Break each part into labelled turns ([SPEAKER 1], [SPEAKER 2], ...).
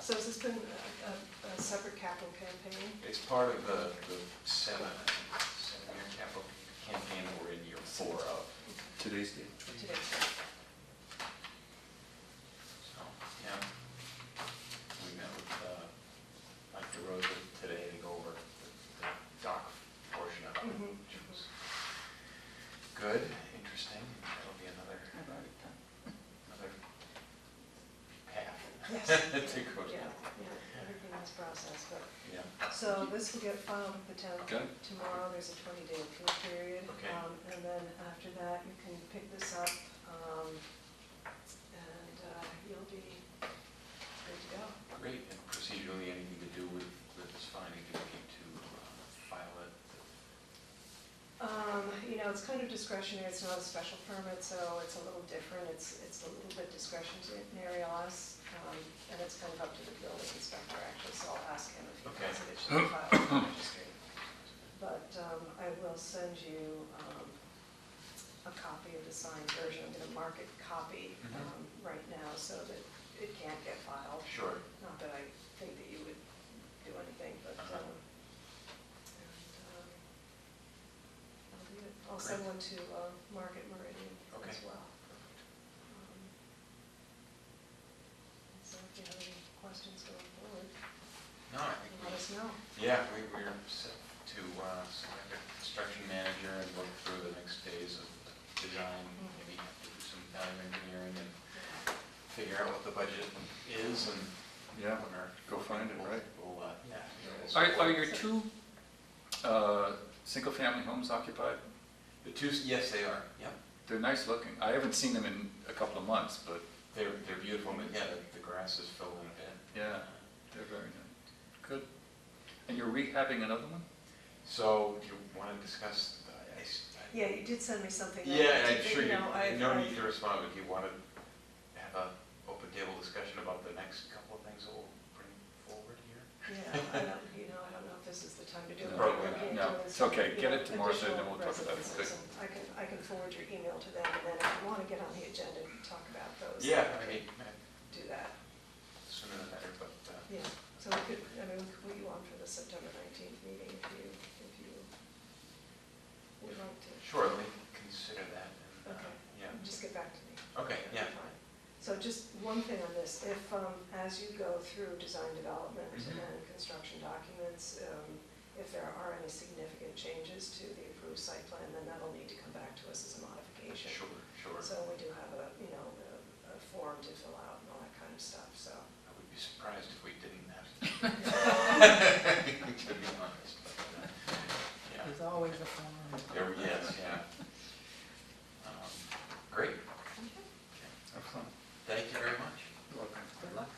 [SPEAKER 1] So has this been a, a, a separate capital campaign?
[SPEAKER 2] It's part of the, the seven, seven-year capital campaign that we're in year four of,
[SPEAKER 3] Today's date.
[SPEAKER 1] Today.
[SPEAKER 2] so, yeah. We met with, uh, Mike DeRosa today to go over the the dock portion of it,
[SPEAKER 1] Mhm.
[SPEAKER 2] which was good, interesting, and that'll be another, another
[SPEAKER 1] Yes.
[SPEAKER 2] path to go
[SPEAKER 1] Yeah,
[SPEAKER 2] down.
[SPEAKER 1] yeah, everything is processed, but,
[SPEAKER 2] Yeah,
[SPEAKER 1] so this will get filed with the town
[SPEAKER 3] Got it.
[SPEAKER 1] tomorrow, there's a twenty-day appeal period.
[SPEAKER 2] Okay.
[SPEAKER 1] Um, And then after that, you can pick this up, um, and uh, you'll be good to go.
[SPEAKER 2] great, and procedurally, anything to do with, with this finding, do we need to uh, file it?
[SPEAKER 1] Um, you know, it's kind of discretionary, it's not a special permit, so it's a little different, it's, it's a little bit discretionary on us, um, and it's kind of up to the building inspector actually, so I'll ask him if he
[SPEAKER 2] Okay.
[SPEAKER 1] thinks that it should be filed with the registry. But, um, I will send you, um, a copy of the signed version, I'm gonna mark it copy,
[SPEAKER 2] Mhm.
[SPEAKER 1] um, right now, so that it can't get filed.
[SPEAKER 2] Sure.
[SPEAKER 1] Not that I think that you would do anything, but,
[SPEAKER 2] Uh-huh.
[SPEAKER 1] um, and, um, I'll do it. I'll send one to uh, Market Meridian as
[SPEAKER 2] Okay.
[SPEAKER 1] well. Um, So if you have any questions going forward,
[SPEAKER 2] No, I think we.
[SPEAKER 1] let us know.
[SPEAKER 2] Yeah, we, we're set to uh, select a construction manager and work through the next phase of design, maybe have to do some value engineering and figure out what the budget is and.
[SPEAKER 3] Yeah,
[SPEAKER 2] when our-
[SPEAKER 3] go find it, right.
[SPEAKER 2] We'll, uh, yeah. we'll-
[SPEAKER 3] Are, are your two, uh, single-family homes occupied?
[SPEAKER 2] The two, yes, they are, yep.
[SPEAKER 3] They're nice looking. I haven't seen them in a couple of months, but
[SPEAKER 2] They're, they're beautiful, but yeah, the- the grass is filling in.
[SPEAKER 3] yeah, they're very nice. Good. And you're rehabbing another one?
[SPEAKER 2] So do you want to discuss, the- I s- I-
[SPEAKER 1] Yeah, you did send me something. I
[SPEAKER 2] Yeah,
[SPEAKER 1] did-
[SPEAKER 2] I'm sure you,
[SPEAKER 1] know, I-
[SPEAKER 2] no
[SPEAKER 1] I-
[SPEAKER 2] need to respond, but do you want to have a open table discussion about the next couple of things that we'll bring forward here?
[SPEAKER 1] Yeah, I don't, you know, I don't know if this is the time to do it.
[SPEAKER 3] No,
[SPEAKER 1] but we're being
[SPEAKER 3] no,
[SPEAKER 1] doing
[SPEAKER 3] it's
[SPEAKER 1] some,
[SPEAKER 3] okay. Get
[SPEAKER 1] you
[SPEAKER 3] it
[SPEAKER 1] know,
[SPEAKER 3] to Martha and then
[SPEAKER 1] additional
[SPEAKER 3] we'll talk about it.
[SPEAKER 1] residences, and I can, I can forward your email to them, and then if you want to get on the agenda and talk about those.
[SPEAKER 2] Yeah, I mean, uh,
[SPEAKER 1] Do that,
[SPEAKER 2] sooner the better, but, uh,
[SPEAKER 1] yeah. So we could, I mean, we could put you on for the September nineteenth meeting if you, if you would like to.
[SPEAKER 2] sure, let me consider that. and, uh,
[SPEAKER 1] Okay.
[SPEAKER 2] Yeah,
[SPEAKER 1] Just get back to me.
[SPEAKER 2] okay, yeah,
[SPEAKER 1] Fine. So just one thing on this, if, um, as you go through design development
[SPEAKER 2] Mhm.
[SPEAKER 1] and construction documents, um, if there are any significant changes to the approved site plan, then that'll need to come back to us as a modification.
[SPEAKER 2] sure, sure.
[SPEAKER 1] So we do have a, you know, a, a form to fill out and all that kind of stuff, so.
[SPEAKER 2] I would be surprised if we didn't have. To be honest, but, uh, yeah.
[SPEAKER 4] There's always a form.
[SPEAKER 2] There- Yes, yeah. Um, Great,
[SPEAKER 3] Have fun.
[SPEAKER 2] thank you very much.
[SPEAKER 3] You're welcome.
[SPEAKER 4] Good luck.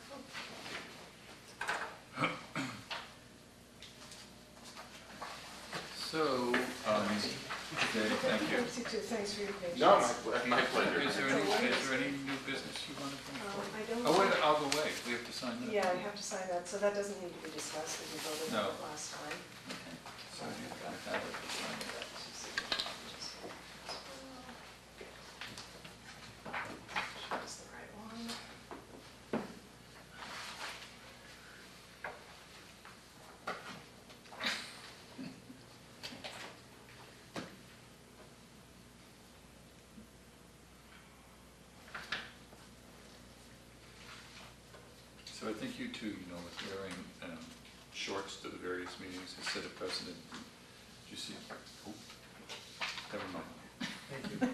[SPEAKER 3] So, um, okay, thank you.
[SPEAKER 1] You too. Thanks for your patience.
[SPEAKER 2] my, my
[SPEAKER 3] Is there any, is there any new business you want to bring
[SPEAKER 1] Um,
[SPEAKER 3] forward?
[SPEAKER 1] I don't.
[SPEAKER 3] Oh, wait, I'll go away. We have to sign that.
[SPEAKER 1] Yeah, I have to sign that, so that doesn't need to be discussed, we voted on it
[SPEAKER 3] No.
[SPEAKER 1] last time.
[SPEAKER 3] Okay. So you've got that.
[SPEAKER 1] Choose the right one.
[SPEAKER 3] So I think you too, you know, with wearing um, shorts to the various meetings has set a precedent. Did you see? oh, Never mind.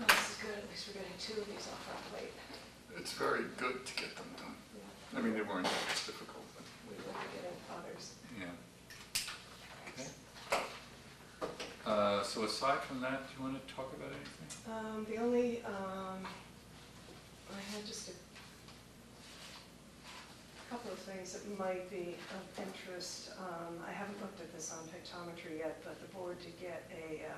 [SPEAKER 1] Oh, this is good, at least we're getting two of these off our plate.
[SPEAKER 3] It's very good to get them done.
[SPEAKER 1] Yeah,
[SPEAKER 3] I mean, they weren't that difficult, but,
[SPEAKER 1] We will be getting others.
[SPEAKER 3] yeah. Okay. Uh, So aside from that, do you want to talk about anything?
[SPEAKER 1] Um, the only, um, I had just a couple of things that might be of interest. Um, I haven't looked at this on pictometry yet, but the board did get a, uh,